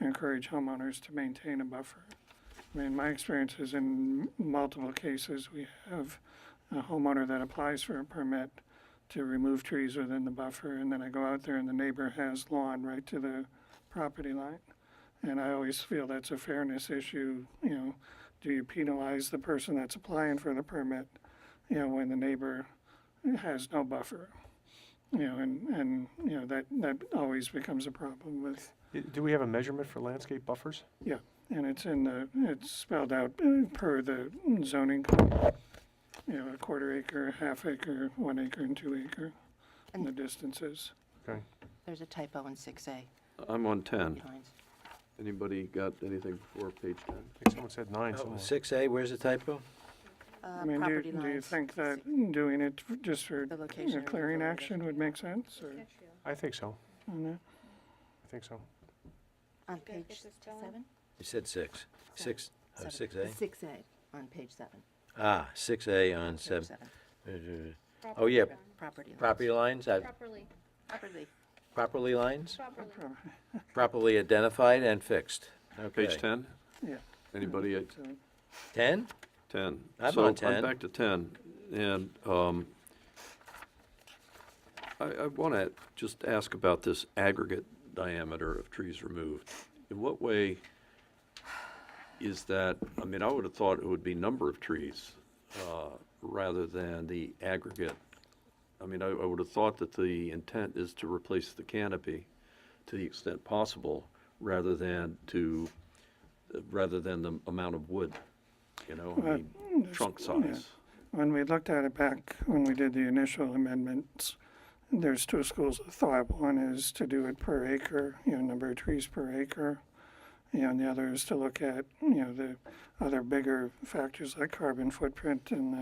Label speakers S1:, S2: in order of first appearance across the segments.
S1: encourage homeowners to maintain a buffer. I mean, my experience is in multiple cases, we have a homeowner that applies for a permit to remove trees within the buffer, and then I go out there and the neighbor has lawn right to the property line. And I always feel that's a fairness issue, you know, do you penalize the person that's applying for the permit, you know, when the neighbor has no buffer? You know, and, and, you know, that, that always becomes a problem with
S2: I- Do we have a measurement for landscape buffers?
S1: and it's in the, it's spelled out uh, per the zoning. code. You know, a quarter acre, half acre, one acre and two acre, and the distances.
S2: Okay.
S3: There's a typo in 6A.
S4: Hmm.
S5: I'm on 10.
S3: Lines.
S5: Anybody got anything before page
S2: I
S5: 10?
S2: think someone said nine somewhere.
S4: Six A, where's the typo?
S3: Uh,
S1: I mean, do,
S3: Property
S1: you- do you
S3: lines.
S1: think that
S3: six-
S1: doing it f- just for
S3: The
S1: you know,
S3: location of the
S1: clearing
S3: building.
S1: action would make sense, or?
S2: I think so.
S1: I don't know.
S2: I think so.
S3: On
S6: Did I get
S3: page
S6: this spelling?
S3: seven?
S4: You said six. Six, oh, six A?
S3: Seven. Six A. On page seven.
S4: Ah, six A on
S3: page
S4: seven. Oh, yeah,
S3: Property lines.
S4: property lines, uh,
S6: Properly,
S3: Properly.
S4: properly lines,
S6: properly.
S4: properly identified and fixed. Okay.
S5: Page 10?
S1: Yeah.
S5: Anybody at
S1: So,
S4: Ten?
S5: 10?
S4: I'm
S5: So
S4: on
S5: I'm
S4: 10.
S5: back to 10, and um, I, I want to just ask about this aggregate diameter of trees removed. In what way is that, I mean, I would have thought it would be number of trees uh, rather than the aggregate. I mean, I I would have thought that the intent is to replace the canopy to the extent possible rather than to, rather than the amount of wood, you know, I
S1: Well,
S5: mean, trunk size.
S1: When we looked at it back, when we did the initial amendments, there's two schools of thought. One is to do it per acre, you know, number of trees per acre. You know, and the other is to look at, you know, the other bigger factors like carbon footprint and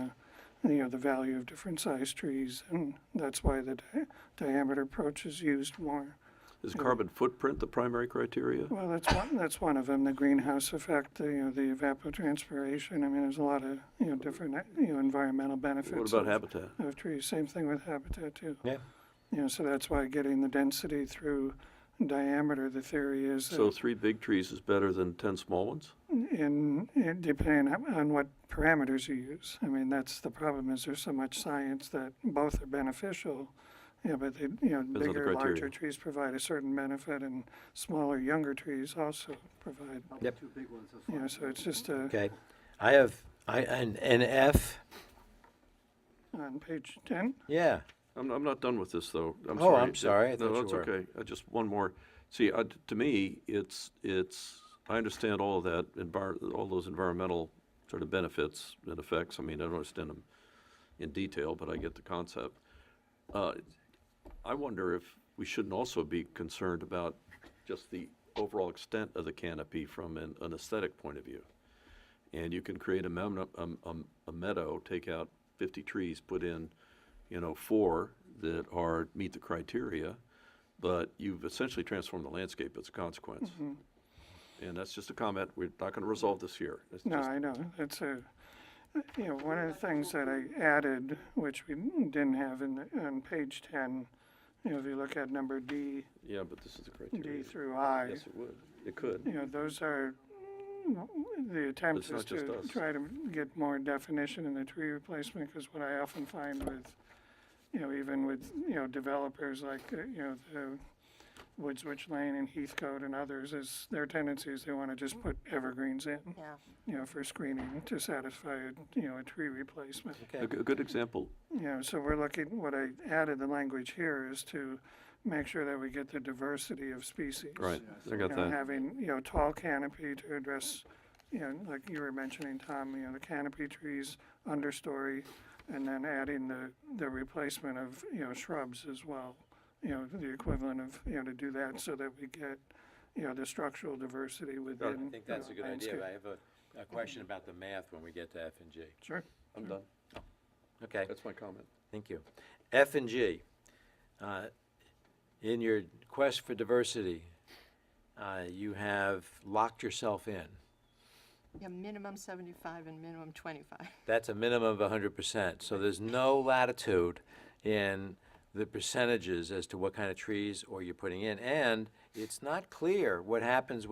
S1: the, you know, the value of different size trees. And that's why the di- diameter approach is used more.
S5: Is carbon footprint the primary criteria?
S1: Well, that's one, that's one of them, the greenhouse effect, the, you know, the evapotranspiration. I mean, there's a lot of, you know, different, uh, you know, environmental benefits.
S5: What about
S1: of-
S5: habitat?
S1: of trees. Same thing with habitat too.
S4: Yeah.
S1: You know, so that's why getting the density through diameter, the theory is
S5: So
S1: that
S5: three big trees is better than 10 small ones?
S1: in, in depending on- on what parameters you use. I mean, that's the problem is there's so much science that both are beneficial. Yeah, but they, you know,
S5: on the
S1: bigger,
S5: criteria.
S1: larger trees provide a certain benefit and smaller, younger trees also provide.
S4: Yep.
S1: You know, so it's just uh, a,
S4: Okay. I have, I, an, an F,
S1: on page ten,
S4: yeah.
S5: I'm, I'm not done with this, though. I'm
S4: Oh,
S5: sorry.
S4: I'm sorry. I
S5: No,
S4: thought you
S5: that's
S4: were.
S5: okay. I Just one more. See, I- to me, it's, it's, I understand all of that, envir- all those environmental sort of benefits and effects. I mean, I don't understand them in detail, but I get the concept. Uh, I wonder if we shouldn't also be concerned about just the overall extent of the canopy from an an aesthetic point of view. And you can create a mem- um, um, a meadow, take out 50 trees, put in, you know, four that are, meet the criteria, but you've essentially transformed the landscape as a consequence. And that's just a comment, we're not going to resolve this here. It's
S1: Mm-hmm. No,
S5: just-
S1: I know, it's a, you know, one of the things that I added, which we didn't have in, the- on page ten, you know, if you look at number D,
S5: Yeah, but this is the
S1: D
S5: criteria.
S1: through I,
S5: Yes, it would. It could.
S1: you know, those are, the attempt
S5: It's not
S1: is
S5: just
S1: to
S5: us.
S1: try to get more definition in the tree replacement, because what I often find with, you know, even with, you know, developers like, uh, you know, the Woods Witch Lane and Heathcote and others, is their tendency is they want to just put evergreens in
S3: Yeah.
S1: you know, for screening to satisfy, a, you know, a tree replacement.
S5: A
S4: Okay.
S5: g- a good example,
S1: You know, so we're looking, what I added the language here is to make sure that we get the diversity of species.
S5: right, I
S1: You
S5: got
S1: know,
S5: that.
S1: having, you know, tall canopy to address, you know, like you were mentioning, Tom, you know, the canopy trees, understory, and then adding the, the replacement of, you know, shrubs as well. You know, the equivalent of, you know, to do that so that we get, you know, the structural diversity
S4: I
S1: within.
S4: think that's a
S1: uh,
S4: good idea.
S1: landscape.
S4: I have a, a question about the math when we get to F and G.
S1: Sure.
S5: I'm done.
S4: Okay.
S5: That's my comment.
S4: Thank you. F and G, uh, in your quest for diversity, uh, you have locked yourself in.
S3: Yeah, minimum 75 and minimum 25.
S4: That's a minimum of 100%. So there's no latitude in the percentages as to what kind of trees or you're putting in. And it's not clear what happens